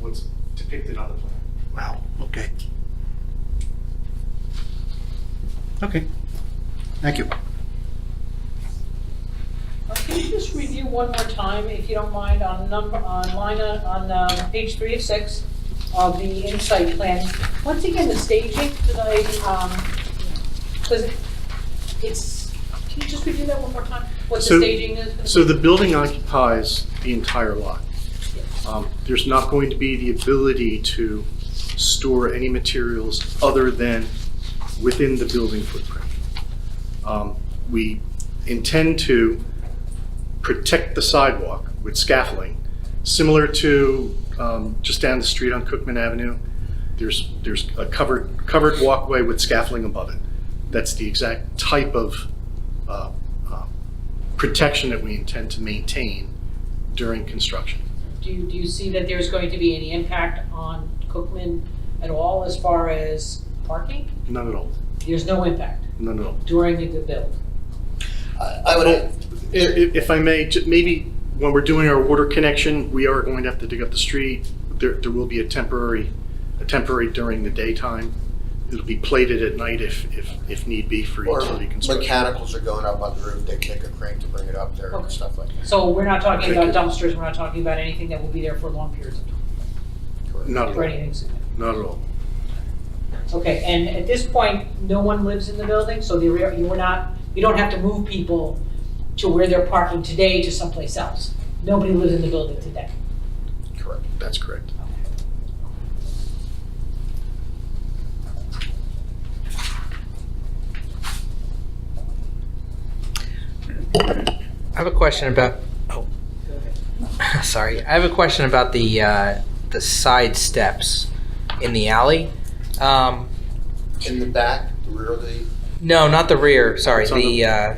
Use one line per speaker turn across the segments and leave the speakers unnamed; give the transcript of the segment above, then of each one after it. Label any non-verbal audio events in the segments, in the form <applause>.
what's depicted on the plan.
Wow, okay. Okay, thank you.
Uh, Can you just review one more time, if you don't mind, on number, on line, uh, on um, page three of six of the insight plan? Once again, the staging, did I, um, was, it- it's, can you just review that one more time? What the
So-
staging is? for
So the building occupies the entire lot. Um, There's not going to be the ability to store any materials other than within the building footprint. Um, We intend to protect the sidewalk with scaffolding, similar to um, just down the street on Cookman Avenue. There's, there's a covered, covered walkway with scaffolding above it. That's the exact type of uh, uh, protection that we intend to maintain during construction.
Do you, do you see that there's going to be any impact on Cookman at all as far as parking?
None at all,
There's no impact
none at all.
during the build.
I I would, add-
I- i- If I may, ju- maybe when we're doing our water connection, we are going to have to dig up the street. There, there will be a temporary, a temporary during the daytime. It'll be plated at night if, if, if need be for
or
utility construction.
mechanicals are going up on the roof, they kick a crane to bring it up there and
Okay.
stuff like that.
So we're not talking about dumpsters, we're not talking about anything that will be there for long periods of time,
Correct.
Not at all,
or anything significant.
not at all.
Okay, and at this point, no one lives in the building, so the rear, you were not, you don't have to move people to where they're parking today to someplace else. Nobody lives in the building today.
Correct.
That's correct.
I have a question about, oh, <laughs> sorry. I have a question about the, uh, the side steps in the alley. Um,
In the back, the rear of the,
no, not the rear, sorry,
It's on
the,
the-
uh,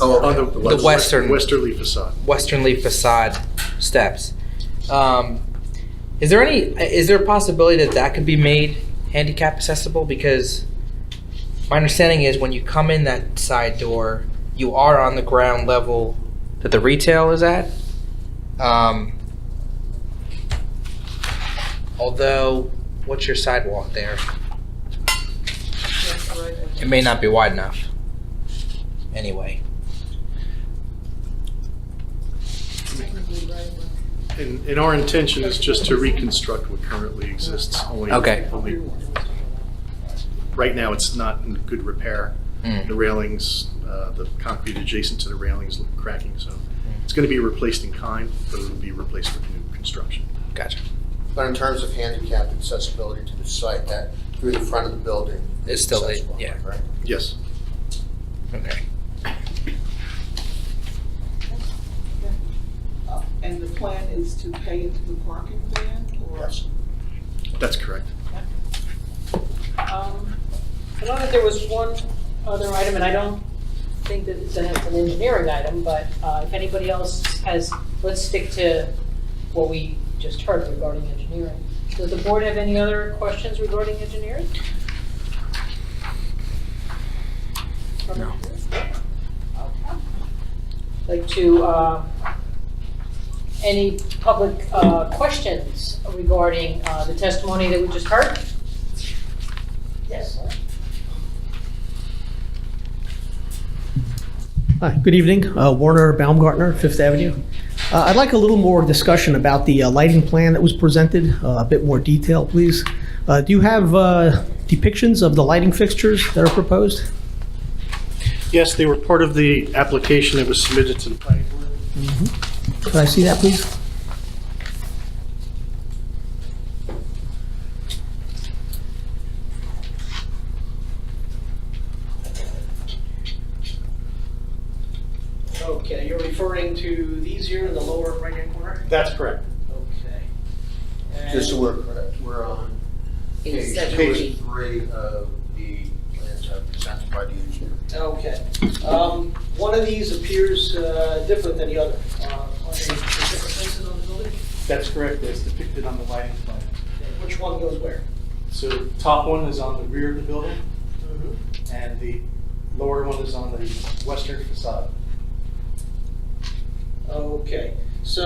oh,
On the
okay.
west-
western-
Westerly facade.
westernly facade steps. Um, is there any, is there a possibility that that could be made handicap accessible? Because my understanding is when you come in that side door, you are on the ground level that the retail is at. Um, although, what's your sidewalk there? It may not be wide enough. Anyway.
And, and our intention is just to reconstruct what currently exists. only-
Okay.
Only, right now, it's not in good repair.
Mm.
The railings, uh, the concrete adjacent to the railings look cracking, so it's going to be replaced in kind, but it'll be replaced with new construction.
Gotcha.
But in terms of handicap accessibility to the site, that through the front of the building.
It's
is
still-
accessible,
yeah.
right?
Yes.
Okay.
Uh, And the plan is to pay into the parking van or?
Yes.
That's correct.
Um, I know that there was one other item, and I don't think that it's an it's an engineering item, but uh, if anybody else has, let's stick to what we just heard regarding engineering. Does the board have any other questions regarding engineering? No. Like to, uh, any public uh, questions regarding uh, the testimony that we just heard? Yes.
Hi, good evening. Uh, Warner Baumgartner, Fifth Avenue. Uh, I'd like a little more discussion about the uh, lighting plan that was presented, uh, a bit more detail, please. Uh, Do you have uh, depictions of the lighting fixtures that are proposed?
Yes, they were part of the application that was submitted to the planning board.
Could I see that, please?
Okay, you're referring to these here in the lower right-hand corner?
That's correct.
Okay. And-
Just so we're, correct, we're on page two and three of the plans that are presented by the engineer.
Okay. Um, One of these appears uh, different than the other. Uh, Are they in different places on the building?
That's correct, as depicted on the lighting plan.
Okay, Which one goes where?
So top one is on the rear of the building, and the lower one is on the western facade.
Okay.